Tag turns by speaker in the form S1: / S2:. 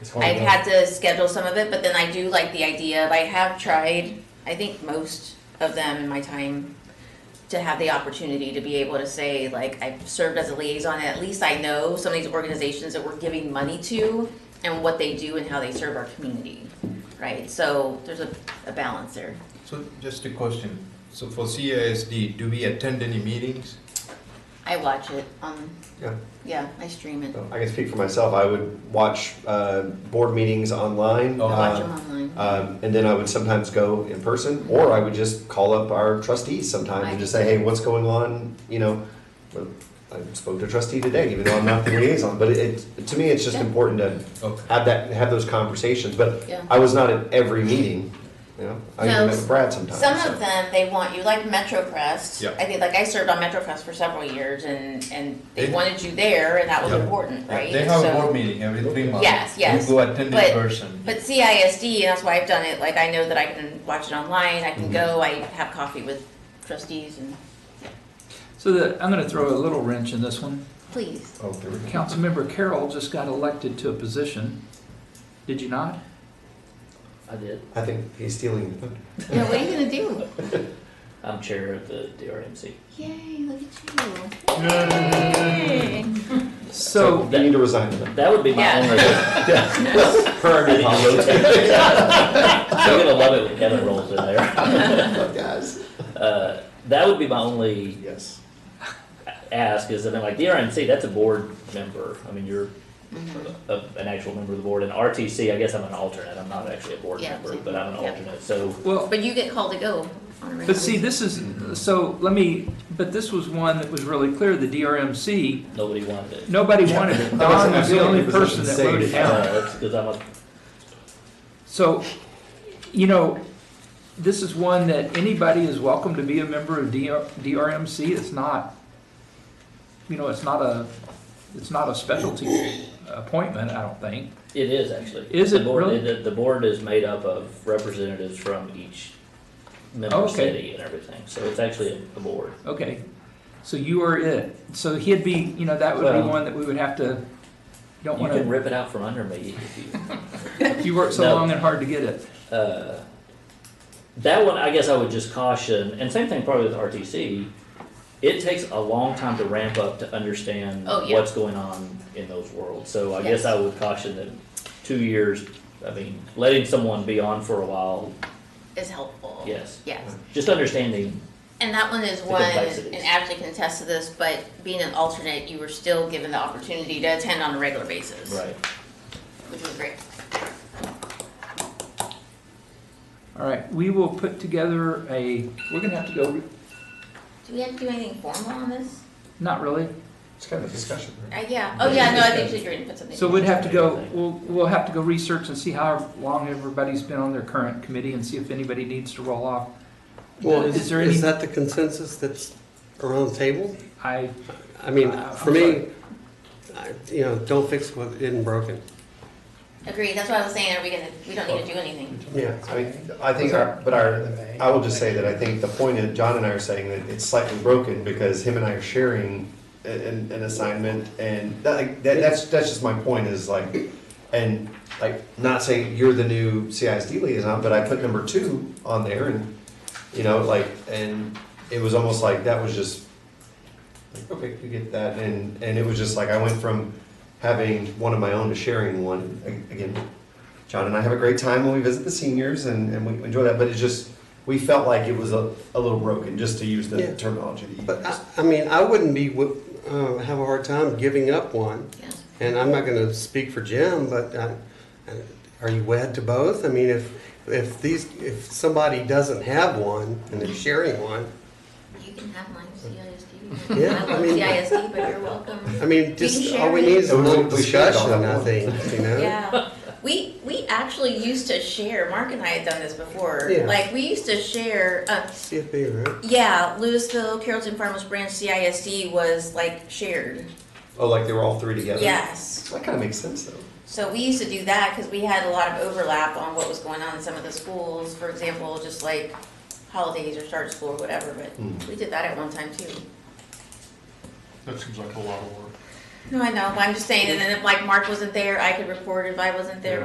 S1: Oh,
S2: I've had to schedule some of it, but then I do like the idea of, I have tried, I think most of them in my time, to have the opportunity to be able to say, like, I've served as a liaison, and at least I know some of these organizations that we're giving money to and what they do and how they serve our community, right? So there's a, a balance there.
S3: So just a question. So for CISD, do we attend any meetings?
S2: I watch it, um,
S3: Yeah.
S2: yeah, I stream it,
S4: I can speak for myself. I would watch uh, board meetings online.
S3: Oh.
S2: I watch them
S4: uh,
S2: online.
S4: um, and then I would sometimes go in person, or I would just call up our trustees sometimes and just say, "Hey, what's going on?" You know, well, I spoke to a trustee today, even though I'm not the liaison. But it, it to me, it's just
S2: Yeah.
S4: important to
S3: Okay.
S4: have that have those conversations. But
S2: Yeah.
S4: I was not at every meeting. You know, I
S2: No,
S4: even met with Brad sometimes.
S2: Some
S4: so.
S2: of them they want you like MetroCrest.
S3: Yeah.
S2: I think like I served on MetroCrest for several years, and and they
S3: They-
S2: wanted you there, and that was
S3: Yeah.
S2: important, right?
S3: They have a
S2: So-
S3: board meeting every three months.
S2: Yes, yes,
S3: You go attend
S2: but-
S3: in person.
S2: But CISD, and that's why I've done it. Like I know that I can watch it online. I can
S3: Mm-hmm.
S2: go. I have coffee with trustees, and
S5: So the, I'm going to throw a little wrench in this one.
S2: please.
S3: Oh, there we go.
S5: Councilmember Carroll just got elected to a position. Did you not?
S1: I did.
S4: I think he's stealing the thunder.
S2: Yeah, what are you gonna do?
S1: I'm chair of the DRMC.
S2: Yay! Look at you. Yay.
S5: So,
S4: you need to resign to them.
S1: That would be my
S2: Yeah.
S1: only. I
S4: Per
S1: need to rotate things out. I'm gonna love it when Kevin rolls in there.
S4: guys.
S1: Uh, That would be my only
S4: Yes.
S1: ask is, I mean, like DRMC, that's a board member. I mean, you're
S2: Mm-hmm.
S1: a, an actual member of the board. And RTC, I guess I'm an alternate. I'm not actually a board
S2: Yeah,
S1: member,
S2: same.
S1: but I'm an
S2: Yeah.
S1: alternate. So
S5: well,
S2: But you get called to go. on a regular
S5: but see,
S2: basis.
S5: this is, so let me, but this was one that was really clear, the DRMC,
S1: nobody wanted it.
S5: nobody wanted it. Don was the only person that voted down.
S1: Because Uh, I'm a,
S5: So, you know, this is one that anybody is welcome to be a member of DR DRMC. It's not, you know, it's not a, it's not a specialty appointment, I don't think.
S1: it is actually.
S5: Is
S1: The
S5: it
S1: board-
S5: really?
S1: The, the board is made up of representatives from each member
S5: Oh, Okay.
S1: city and everything. So it's actually a- a board.
S5: Okay, so you are it. So he'd be, you know, that would be
S1: Well-
S5: one that we would have to, don't
S1: You can
S5: want
S1: rip it out from under me if you.
S5: to, you worked so
S1: No.
S5: long and hard to get it.
S1: Uh, That one, I guess I would just caution, and same thing probably with RTC, it takes a long time to ramp up to understand
S2: Oh, yeah.
S1: what's going on in those worlds. So I
S2: Yes.
S1: guess I would caution that two years, I mean, letting someone be on for a while,
S2: is helpful.
S1: yes.
S2: Yes.
S1: Just understanding,
S2: And that one is one,
S1: complexities.
S2: and Ashley can attest to this, but being an alternate, you were still given the opportunity to attend on a regular basis.
S1: right.
S2: Which was great.
S5: All right, we will put together a, we're gonna have to go,
S2: Do we have to do anything formal on this?
S5: not really.
S4: It's kind of a discussion. Right?
S2: Uh, yeah, oh yeah, no, I think she's ready to put something.
S5: So we'd have to go, we'll, we'll have to go research and see how long everybody's been on their current committee and see if anybody needs to roll off.
S6: Well,
S5: Is
S6: is
S5: there any-
S6: is that the consensus that's around the table?
S5: I,
S6: I mean,
S5: Uh,
S6: for
S5: I'm
S6: me, I- you know, don't fix what isn't broken.
S2: Agreed, that's what I was saying, are we gonna, we don't need to do anything.
S4: Yeah, I mean, I think, our- but our, I will just say that I think the point that John and I are saying that it's slightly broken because him and I are sharing a- an, an assignment and that, like, that, that's, that's just my point is like, and like, not saying you're the new CISD liaison, but I put number two on there and, you know, like, and it was almost like that was just, like, okay, you get that, and, and it was just like, I went from having one of my own to sharing one, A- again, John and I have a great time when we visit the seniors and, and we enjoy that, but it's just, we felt like it was a, a little broken, just to use
S6: Yeah.
S4: the terminology that you
S6: But I,
S4: used.
S6: I mean, I wouldn't be, wi- uh, have a hard time giving up one.
S2: Yeah.
S6: And I'm not gonna speak for Jim, but I- I- are you wed to both? I mean, if, if these, if somebody doesn't have one and they're sharing one,
S2: You can have mine,
S6: Yeah,
S2: CISD. I
S6: I
S2: love
S6: mean-
S2: CISD, but you're welcome.
S6: I mean,
S2: We
S6: just,
S2: can
S6: all we
S2: share
S6: need
S2: it.
S6: is a
S4: We-
S6: little
S4: we should all have
S6: discussion, I
S4: one.
S6: think, you know?
S2: Yeah, we we actually used to share. Mark and I had done this before.
S6: Yeah.
S2: Like we used to share. Uh,
S6: CFP, right?
S2: yeah, Louisville, Carrollton Farmers Branch, CISD was like shared.
S4: Oh, like they were all three together?
S2: Yes.
S4: That kind of makes sense though.
S2: So we used to do that because we had a lot of overlap on what was going on in some of the schools. For example, just like holidays or start school or whatever. But
S4: Mm.
S2: we did that at one time too.
S7: That seems like a lot of work.
S2: No, I know, but I'm just saying, and then if like Mark wasn't there, I could report if I wasn't there,